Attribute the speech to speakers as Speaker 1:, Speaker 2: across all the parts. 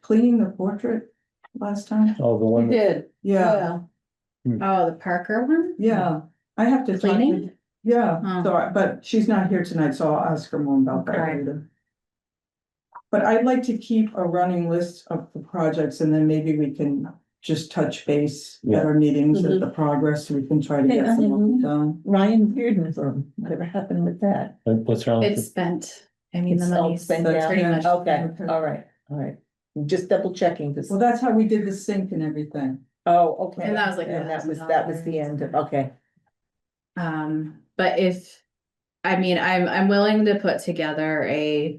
Speaker 1: cleaning the portrait last time?
Speaker 2: Oh, the
Speaker 3: You
Speaker 2: one, that-
Speaker 3: did.
Speaker 1: Yeah,
Speaker 2: Hmm.
Speaker 3: Oh, the Parker one?
Speaker 1: yeah, I have to. talk to-
Speaker 3: Oh. Cleaning?
Speaker 1: Yeah,
Speaker 3: Huh.
Speaker 1: so, I- but she's not here tonight, so I'll ask her more about that
Speaker 3: Okay.
Speaker 1: later. But I'd like to keep a running list of the projects and then maybe we can just touch base
Speaker 2: Yeah.
Speaker 1: at our meetings
Speaker 3: Mm-hmm.
Speaker 1: at the progress, we can try to get some of them done.
Speaker 4: Ryan Bearden's room, whatever happened with that?
Speaker 2: what's wrong?
Speaker 3: It's
Speaker 2: with
Speaker 3: spent. I mean, the
Speaker 4: It's all
Speaker 3: money's.
Speaker 4: spent
Speaker 1: That's
Speaker 4: now?
Speaker 3: pretty much-
Speaker 4: Okay, all right, all right. Just double checking this.
Speaker 1: Well, that's how we did the sink and everything.
Speaker 4: Oh, okay.
Speaker 3: And that was like
Speaker 4: And that was, that was the end of, okay.
Speaker 3: Um, but if, I mean, I'm, I'm willing to put together a.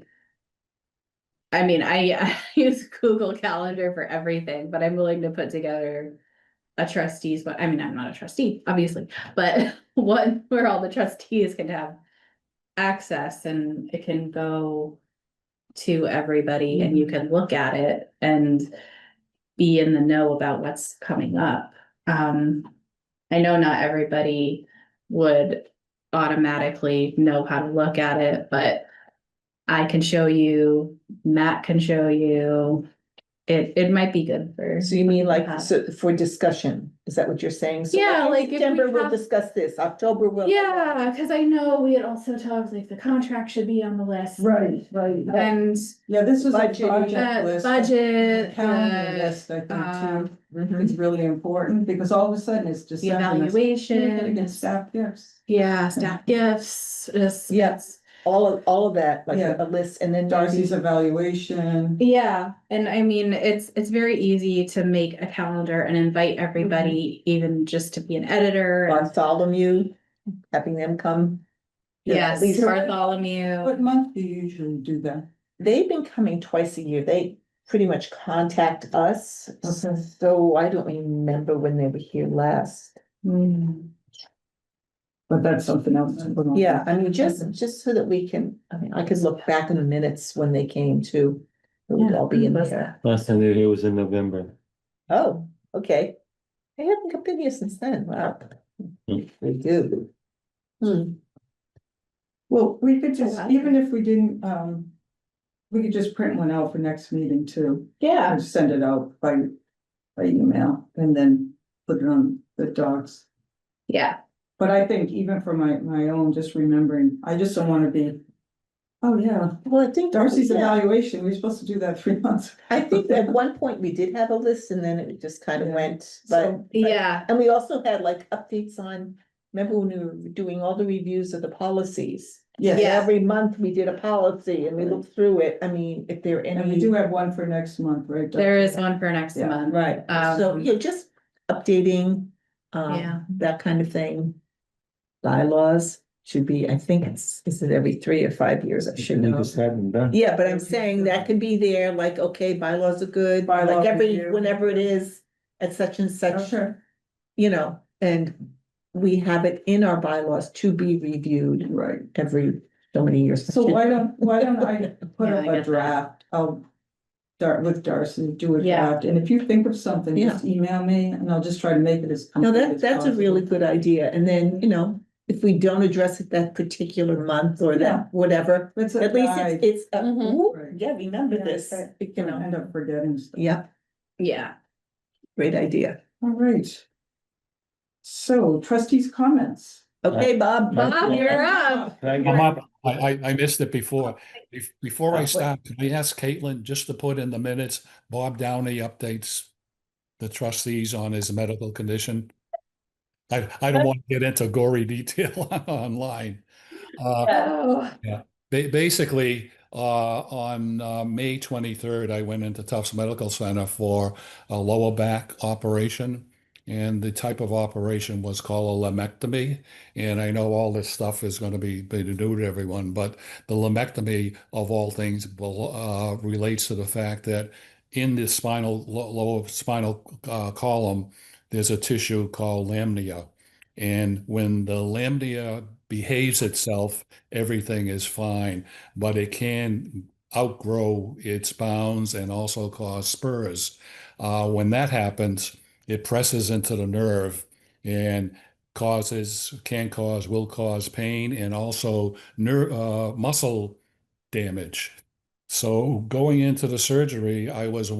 Speaker 3: I mean, I, I use Google Calendar for everything, but I'm willing to put together. A trustees, but I mean, I'm not a trustee, obviously, but one where all the trustees can have. Access and it can go. To everybody and you can look at it and. Be in the know about what's coming up. Um, I know not everybody would automatically know how to look at it, but I can show you, Matt can show you. It, it might be good for,
Speaker 4: So you mean
Speaker 3: Uh-huh.
Speaker 4: like, so for discussion, is that what you're saying? So
Speaker 3: Yeah,
Speaker 4: in
Speaker 3: like if we
Speaker 4: September, we'll
Speaker 3: have-
Speaker 4: discuss this, October, we'll.
Speaker 3: yeah, cause I know we had also talked like the contract should be on the list.
Speaker 1: Right, right.
Speaker 3: And
Speaker 1: Yeah, this is a
Speaker 4: Budget,
Speaker 1: project
Speaker 3: the
Speaker 1: list.
Speaker 3: budget, uh,
Speaker 1: Calendar
Speaker 3: the,
Speaker 1: list, I think,
Speaker 3: um,
Speaker 1: too.
Speaker 4: Mhm.
Speaker 1: It's really important because all of a sudden it's just.
Speaker 3: the
Speaker 1: Against
Speaker 3: evaluation,
Speaker 1: staff gifts.
Speaker 3: yeah, staff gifts, just.
Speaker 4: Yes. All of, all of that, like
Speaker 1: Yeah.
Speaker 4: a list and then.
Speaker 1: Darcy's evaluation.
Speaker 3: Yeah, and I mean, it's, it's very easy to make a calendar and invite everybody, even just to be an editor. and-
Speaker 4: Bartholomew, having them come. you know, at
Speaker 3: Yes,
Speaker 4: least-
Speaker 1: What
Speaker 3: Bartholomew,
Speaker 1: month do you usually do that?
Speaker 4: They've been coming twice a year. They pretty much contact us.
Speaker 1: Okay.
Speaker 4: So I don't remember when they were here last.
Speaker 3: Mm-hmm.
Speaker 1: But that's something else. to put on.
Speaker 4: Yeah, I mean, just, just so that we can, I mean, I could look back in the minutes when they came to. It would all be in
Speaker 3: Yeah.
Speaker 4: there.
Speaker 2: Last time they were here was in November.
Speaker 4: Oh, okay. They haven't come in here since then. Wow.
Speaker 2: Hmm.
Speaker 4: They do. Hmm,
Speaker 1: Well, we could
Speaker 3: Oh,
Speaker 1: just,
Speaker 3: wow.
Speaker 1: even if we didn't, um, we could just print one out for next meeting too.
Speaker 3: yeah,
Speaker 1: And send it out by, by email and then put it on the docs.
Speaker 3: yeah,
Speaker 1: But I think even for my, my own, just remembering, I just don't wanna be, oh yeah,
Speaker 4: well, I think.
Speaker 1: Darcy's
Speaker 4: yeah.
Speaker 1: evaluation, we we're supposed to do that three months.
Speaker 4: I think at one point we did have a list and then it just kind of
Speaker 1: Yeah.
Speaker 4: went, but,
Speaker 1: So-
Speaker 3: yeah,
Speaker 4: and we also had like updates on. Remember when we were doing all the reviews of the policies?
Speaker 1: Yes,
Speaker 3: Yeah.
Speaker 4: Every month we did a policy and we looked through it. I mean, if there are
Speaker 1: and we
Speaker 4: any.
Speaker 1: do have one for next month, right? Darcy?
Speaker 3: there is one for next
Speaker 1: Yeah.
Speaker 3: month.
Speaker 4: Right, so,
Speaker 3: Um,
Speaker 4: yeah, just updating,
Speaker 3: Yeah.
Speaker 4: um, that kind of thing. Bylaws should be, I think it's, is it every three or five years? I should
Speaker 2: We
Speaker 4: know.
Speaker 2: just hadn't done.
Speaker 4: Yeah, but I'm saying that could be there, like, okay, bylaws are good,
Speaker 1: Bylaw
Speaker 4: like every,
Speaker 1: review.
Speaker 4: whenever it is, at such and
Speaker 1: Oh,
Speaker 4: such,
Speaker 1: Sure,
Speaker 4: you know, and we have it in our bylaws to be reviewed
Speaker 1: right.
Speaker 4: every so many years.
Speaker 1: So why don't, why don't I put
Speaker 3: Yeah, I
Speaker 1: up
Speaker 3: get
Speaker 1: a
Speaker 3: that.
Speaker 1: draft, I'll start with Darcy, do a
Speaker 3: Yeah.
Speaker 1: draft, and if you think of something, just email me and I'll just try to make it as.
Speaker 4: No,
Speaker 1: complete
Speaker 4: that,
Speaker 1: as
Speaker 4: that's a really
Speaker 1: possible.
Speaker 4: good idea, and then, you know, if we don't address it that particular month or
Speaker 1: Yeah.
Speaker 4: that, whatever,
Speaker 1: It's a
Speaker 4: at least
Speaker 1: guide,
Speaker 4: it's, it's, a-
Speaker 3: Mhm.
Speaker 4: whoop,
Speaker 1: Right.
Speaker 4: yeah, remember
Speaker 1: Yeah,
Speaker 4: this,
Speaker 1: right.
Speaker 4: you
Speaker 1: I
Speaker 4: know,
Speaker 1: End up forgetting stuff.
Speaker 4: yeah,
Speaker 3: Yeah,
Speaker 4: great idea.
Speaker 1: All right. So trustees' comments.
Speaker 4: Okay, Bob.
Speaker 3: Bob, you're up.
Speaker 2: Can I
Speaker 5: I'm
Speaker 2: get-
Speaker 5: up. I, I, I missed it before. Bef- Before I start, can I ask Caitlin just to put in the minutes, Bob Downey updates the trustees on his medical condition? I, I don't want to get into gory detail online. Uh,
Speaker 3: Oh,
Speaker 5: Ba- basically, uh, on, uh, May twenty-third, I went into Tufts Medical Center for a lower back operation. And the type of operation was called a lemectomy. And I know all this stuff is going to be, be new to everyone, but the lemectomy of all things will, uh, relates to the fact that in the spinal, lo- lower spinal, uh, column, there's a tissue called lamina. And when the lamina behaves itself, everything is fine, but it can outgrow its bounds and also cause spurs. Uh, when that happens, it presses into the nerve and causes, can cause, will cause pain and also nerve, uh, muscle damage. So going into the surgery, I was